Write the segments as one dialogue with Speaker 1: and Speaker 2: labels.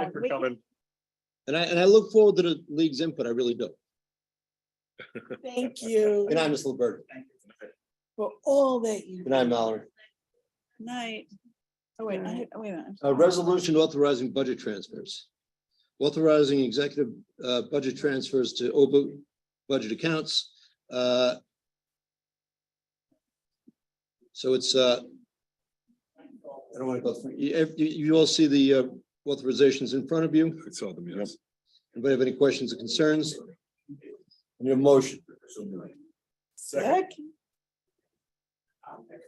Speaker 1: Thanks for coming.
Speaker 2: And I, and I look forward to the league's input. I really do.
Speaker 3: Thank you
Speaker 2: And I'm Miss Bird.
Speaker 3: for all that you.
Speaker 2: Good night, Mallory.
Speaker 3: Night. Oh, wait, I, oh, wait a minute.
Speaker 2: A Uh, resolution authorizing budget transfers. Authorizing executive uh, budget transfers to OBU budget accounts. uh, So it's, uh, I don't want to go through, you, if- you- you all see the uh, authorizations in front of you.
Speaker 1: I saw them, yes.
Speaker 2: Anybody have any questions or concerns? Your motion.
Speaker 3: Second.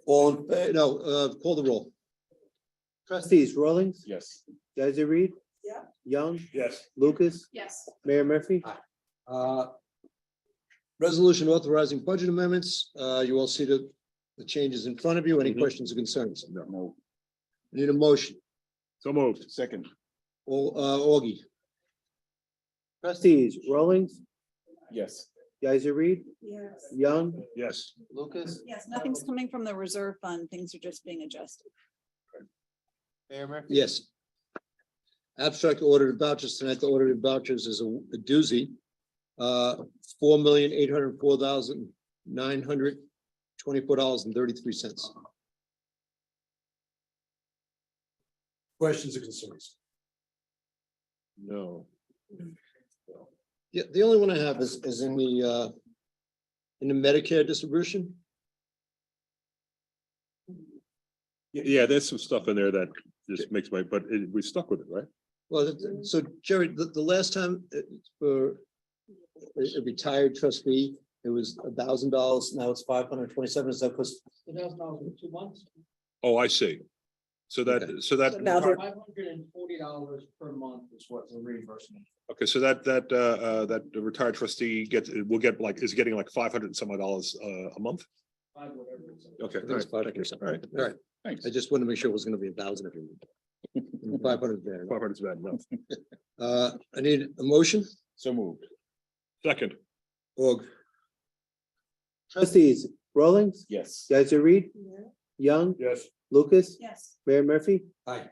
Speaker 2: All, in fa- no, uh, call the roll.
Speaker 4: Trustees Rawlings,
Speaker 1: Yes.
Speaker 4: Guys, Reed.
Speaker 3: Yeah.
Speaker 4: Young,
Speaker 1: Yes.
Speaker 4: Lucas,
Speaker 3: Yes.
Speaker 4: Mayor Murphy.
Speaker 2: Uh, Resolution authorizing budget amendments. Uh, You all see the, the changes in front of you. Any
Speaker 1: Mhm.
Speaker 2: questions or concerns?
Speaker 1: No.
Speaker 2: Need a motion.
Speaker 1: So moved. Second.
Speaker 2: Au- uh, Augie,
Speaker 4: Trustees Rawlings,
Speaker 1: Yes.
Speaker 4: Guys, Reed,
Speaker 3: Yes.
Speaker 4: Young,
Speaker 1: Yes.
Speaker 4: Lucas,
Speaker 3: Yes, nothing's coming from the reserve fund. Things are just being adjusted.
Speaker 4: Mayor Murphy.
Speaker 2: yes. Abstract ordered vouchers tonight. The ordered vouchers is a a doozy. Uh, Four million, eight hundred four thousand, nine hundred twenty-four dollars and thirty-three cents. Questions or concerns?
Speaker 1: No.
Speaker 2: Yeah, the only one I have is, is in the, uh, in the Medicare distribution.
Speaker 1: Yeah, there's some stuff in there that just makes my, but it- we stuck with it, right?
Speaker 2: Well, th- th- so Jerry, the, the last time uh, for a a retired trustee, it was a thousand dollars, now it's five hundred twenty-seven, is that because?
Speaker 5: Two thousand dollars in two months.
Speaker 1: Oh, I see. So
Speaker 2: Okay.
Speaker 1: that, so that,
Speaker 5: Five hundred and forty dollars per month is what the reimbursement.
Speaker 1: okay, so that, that, uh, uh, that retired trustee gets, will get like, is getting like five hundred and some odd dollars, uh, a month?
Speaker 5: Five whatever. it is.
Speaker 1: Okay. all right.
Speaker 2: All right, all right,
Speaker 1: Thanks.
Speaker 2: I just wanted to make sure it was gonna be a thousand every month. Five hundred there.
Speaker 1: Five hundred is bad enough.
Speaker 2: Uh, I need a motion,
Speaker 1: So moved. Second.
Speaker 2: or
Speaker 4: Trustees Rawlings,
Speaker 1: Yes.
Speaker 4: Guys, Reed, Young,
Speaker 1: Yes.
Speaker 4: Lucas,
Speaker 3: Yes.
Speaker 4: Mayor Murphy.
Speaker 2: uh,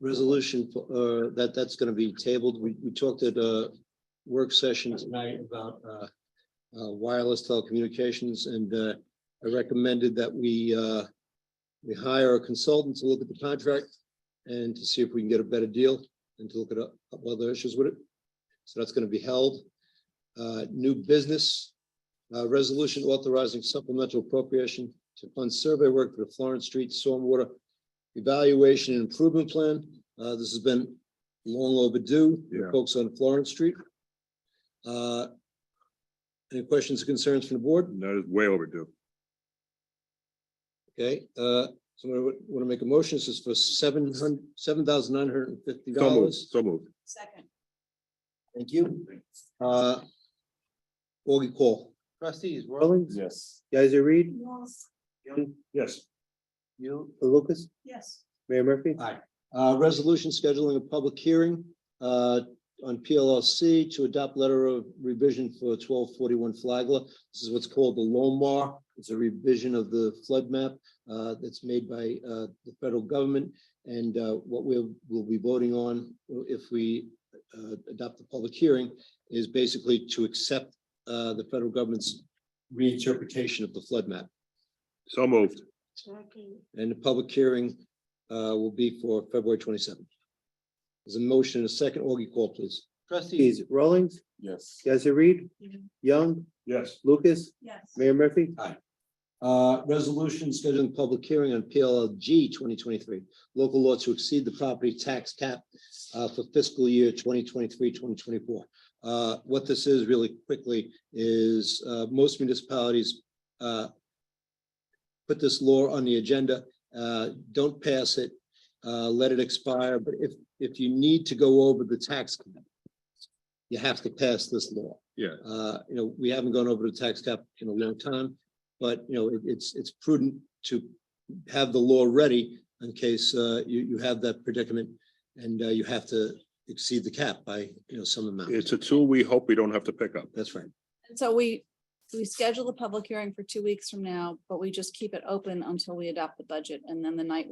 Speaker 2: resolution, for- uh, that, that's gonna be tabled, we, we talked at, uh, work session tonight about, uh, uh, wireless telecommunications, and, uh, I recommended that we, uh, we hire a consultant to look at the contract and to see if we can get a better deal and to look at a couple other issues with it. So that's gonna be held. Uh, new business, uh, resolution authorizing supplemental appropriation to fund survey work for the Florence Street Stormwater Evaluation and Improvement Plan. Uh, this has been long overdue, for
Speaker 1: Yeah.
Speaker 2: folks on Florence Street. Uh, any questions or concerns from the board?
Speaker 1: That is way overdue.
Speaker 2: Okay, uh, somebody want to make a motion, this is for seven hundred, seven thousand nine hundred and fifty
Speaker 1: So moved,
Speaker 2: dollars.
Speaker 1: so moved.
Speaker 3: Second.
Speaker 2: Thank you. Uh, Augie call.
Speaker 4: Trustees Rawlings,
Speaker 1: Yes.
Speaker 4: Guys, Reed,
Speaker 3: Yes.
Speaker 1: Yes.
Speaker 4: you, Lucas,
Speaker 3: Yes.
Speaker 4: Mayor Murphy.
Speaker 2: Aye. Uh, resolution scheduling a public hearing, uh, on PLLC to adopt letter of revision for twelve forty-one Flagler. This is what's called the Lomar. It's a revision of the flood map, uh, that's made by, uh, the federal government. And, uh, what we will be voting on if we, uh, adopt the public hearing is basically to accept, uh, the federal government's reinterpretation of the flood map.
Speaker 1: So moved.
Speaker 2: And the public hearing uh, will be for February twenty-seventh. There's a motion, and a second, Augie call, please.
Speaker 4: Trustees Rawlings,
Speaker 1: Yes.
Speaker 4: Guys, Reed,
Speaker 3: Mhm.
Speaker 4: Young,
Speaker 1: Yes.
Speaker 4: Lucas,
Speaker 3: Yes.
Speaker 4: Mayor Murphy.
Speaker 2: Uh, Resolution scheduling public hearing on PLG twenty twenty-three, local law to exceed the property tax cap uh, for fiscal year 2023-2024. Uh, what this is really quickly is uh, most municipalities uh, put this law on the agenda, uh, don't pass it, uh, let it expire, but if, if you need to go over the tax cap, you have to pass this law.
Speaker 1: Yeah.
Speaker 2: Uh, you know, we haven't gone over the tax cap in a long time, but you know, it- it's, it's prudent to have the law ready in case, uh, you, you have that predicament and, uh, you have to exceed the cap by, you know, some amount.
Speaker 1: It's a tool we hope we don't have to pick up.
Speaker 2: That's right.
Speaker 3: And so we, we schedule the public hearing for two weeks from now, but we just keep it open until we adopt the budget. And then the night we